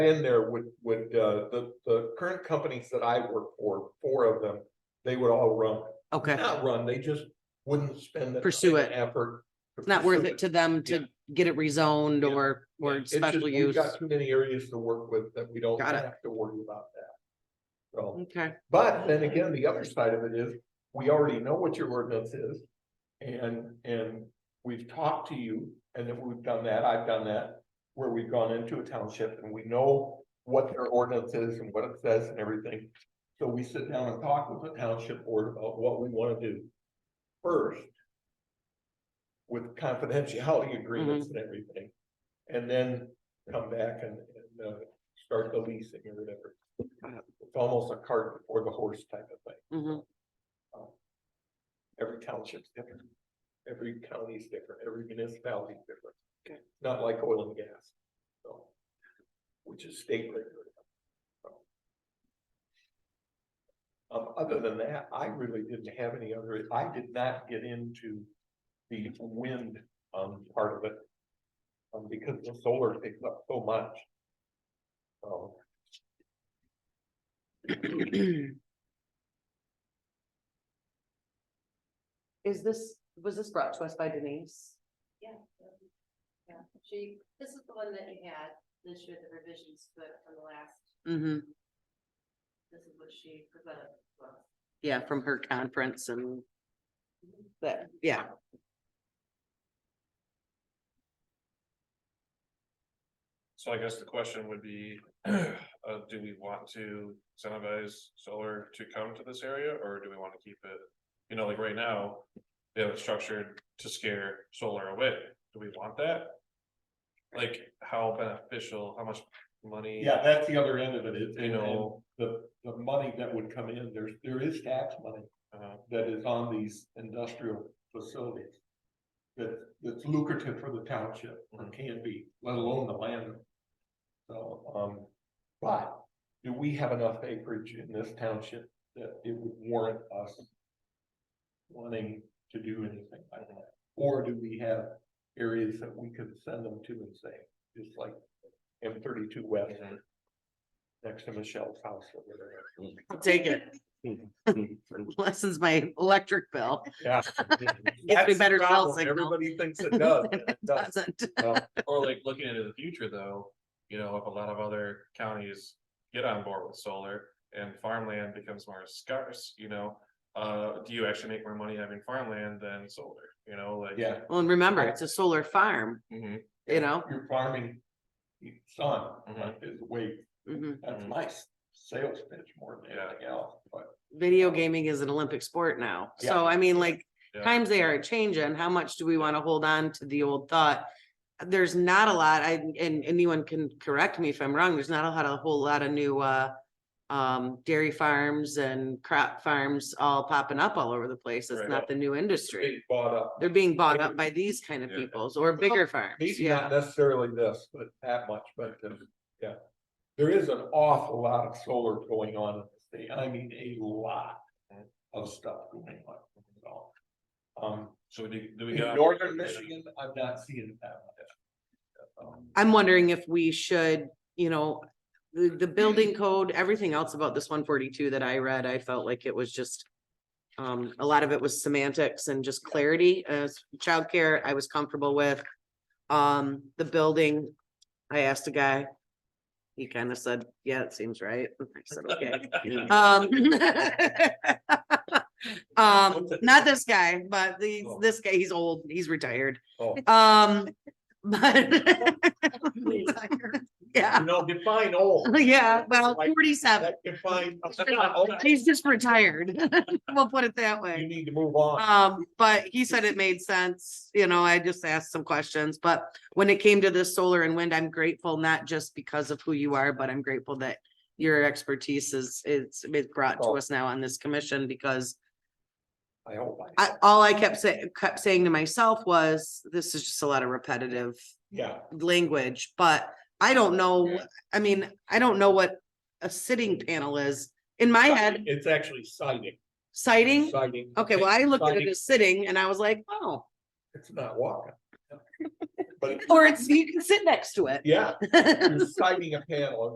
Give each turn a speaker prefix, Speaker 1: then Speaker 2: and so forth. Speaker 1: in there would, would, uh, the, the current companies that I work for, four of them, they would all run,
Speaker 2: Okay,
Speaker 1: not run, they just wouldn't spend the. time
Speaker 2: Pursue
Speaker 1: and
Speaker 2: it.
Speaker 1: Effort.
Speaker 2: it's not worth it to them
Speaker 1: Yeah.
Speaker 2: to get it rezoned
Speaker 1: Yeah.
Speaker 2: or, or
Speaker 1: It's just
Speaker 2: special
Speaker 1: we've
Speaker 2: use.
Speaker 1: Got too many areas to work with that we don't
Speaker 2: Got it. Mm.
Speaker 1: have to worry about that. So,
Speaker 2: Okay,
Speaker 1: but then again, the other side of it is, we already know what your ordinance is. And, and we've talked to you and if we've done that, I've done that, where we've gone into a township and we know what their ordinance is and what it says and everything. So we sit down and talk with the township board about what we wanna do first. With confidentiality agreements and everything, and then come back and, and, uh, start the leasing or whatever.
Speaker 2: Got
Speaker 1: It's almost a cart before the horse type of thing.
Speaker 2: mhm,
Speaker 1: Every township's different. Every county's different, every municipality's different.
Speaker 2: Okay.
Speaker 1: Not like oil and gas. So. Which is state regulated. So. Um, other than that, I really didn't have any other, I did not get into the wind, um, part of it. Um, because the solar takes up so much. Um, So.
Speaker 2: Mm-hmm. Is this, was this brought to us by Denise?
Speaker 3: Yeah. Yeah, she, this is the one that you had this year, the revisions, but from the last,
Speaker 2: hmm
Speaker 3: this is what she presented. to us.
Speaker 2: yeah, from her conference and
Speaker 3: Mm-hmm.
Speaker 2: that, yeah.
Speaker 4: So I guess the question would be, uh, do we want to incentivize solar to come to this area, or do we want to keep it? You know, like right now, they have it structured to scare solar away. Do we want that? Like, how beneficial, how much money?
Speaker 1: Yeah, that's the other end of it, is,
Speaker 4: You know.
Speaker 1: the, the money that would come in, there's, there is tax money
Speaker 4: uh,
Speaker 1: that is on these industrial facilities. That, that's lucrative for the township, or
Speaker 4: Mhm.
Speaker 1: can be, let alone the land. So, um, but do we have enough acreage in this township that it would warrant us? Wanting to do anything like that, or do we have areas that we could send them to and say, just like M thirty-two west?
Speaker 4: Mhm.
Speaker 1: Next to Michelle's house or whatever.
Speaker 2: I'll take it. Lessens my electric bill.
Speaker 1: Yeah.
Speaker 2: Gets me
Speaker 1: That's the
Speaker 2: better cell
Speaker 1: problem.
Speaker 2: signal.
Speaker 1: Everybody thinks it does. and it doesn't.
Speaker 2: Doesn't.
Speaker 1: No.
Speaker 4: Or like looking into the future though, you know, if a lot of other counties get on board with solar and farmland becomes more scarce, you know. Uh, do you actually make more money having farmland than solar, you know, like?
Speaker 1: Yeah.
Speaker 2: Well, and remember, it's a solar farm,
Speaker 4: Mhm,
Speaker 2: you know?
Speaker 1: You're farming your son,
Speaker 4: Mhm.
Speaker 1: his weight.
Speaker 2: Mhm.
Speaker 1: That's
Speaker 4: Mhm.
Speaker 1: my s- sales pitch more than
Speaker 4: Yeah.
Speaker 1: anything else, but
Speaker 2: Video gaming is an Olympic sport now. So
Speaker 1: Yeah.
Speaker 2: I mean, like,
Speaker 4: Yeah.
Speaker 2: times they are changing, how much do we want to hold on to the old thought? There's not a lot, I, and anyone can correct me if I'm wrong, there's not a lot, a whole lot of new, uh, um, dairy farms and crop farms all popping up all over the place. It's
Speaker 4: Right.
Speaker 2: not the new industry.
Speaker 1: they bought up,
Speaker 2: They're being bought up by these kind of
Speaker 4: Yeah.
Speaker 2: peoples or bigger farms,
Speaker 1: maybe
Speaker 2: yeah.
Speaker 1: not necessarily this, but that much, but, um, yeah. There is an awful lot of solar going on in the state. I mean, a lot of stuff going on. So, Um,
Speaker 4: So do, do we
Speaker 1: in
Speaker 4: got?
Speaker 1: northern Michigan, I'm not seeing it that much. Um,
Speaker 2: I'm wondering if we should, you know, the, the building code, everything else about this one forty-two that I read, I felt like it was just. Um, a lot of it was semantics and just clarity, as childcare, I was comfortable with. Um, the building, I asked a guy. He kind of said, yeah, it seems right. I said, okay. Um. Um, not this guy, but the, this guy, he's old, he's retired.
Speaker 1: Oh.
Speaker 2: Um, but. Yeah,
Speaker 1: You know, define old.
Speaker 2: yeah, well,
Speaker 1: Like,
Speaker 2: forty-seven.
Speaker 1: that Define, oh,
Speaker 2: He's just retired. We'll put it that
Speaker 1: you
Speaker 2: way.
Speaker 1: need to move on.
Speaker 2: Um, but he said it made sense, you know, I just asked some questions, but when it came to this solar and wind, I'm grateful, not just because of who you are, but I'm grateful that your expertise is, is, is brought to
Speaker 1: Oh.
Speaker 2: us now on this commission because
Speaker 1: I hope.
Speaker 2: I, all I kept saying, kept saying to myself was, this is just a lot of repetitive
Speaker 1: Yeah.
Speaker 2: language, but I don't know,
Speaker 4: Yeah.
Speaker 2: I mean, I don't know what a sitting panel is. In my head,
Speaker 1: It's actually citing.
Speaker 2: sighting,
Speaker 1: Citing.
Speaker 2: okay, well, I looked at it
Speaker 1: Sighting.
Speaker 2: as sitting and I was like, oh,
Speaker 1: It's not walking. But, it-
Speaker 2: or it's, you can sit next to it.
Speaker 1: yeah,
Speaker 2: Yeah.
Speaker 1: you're citing a panel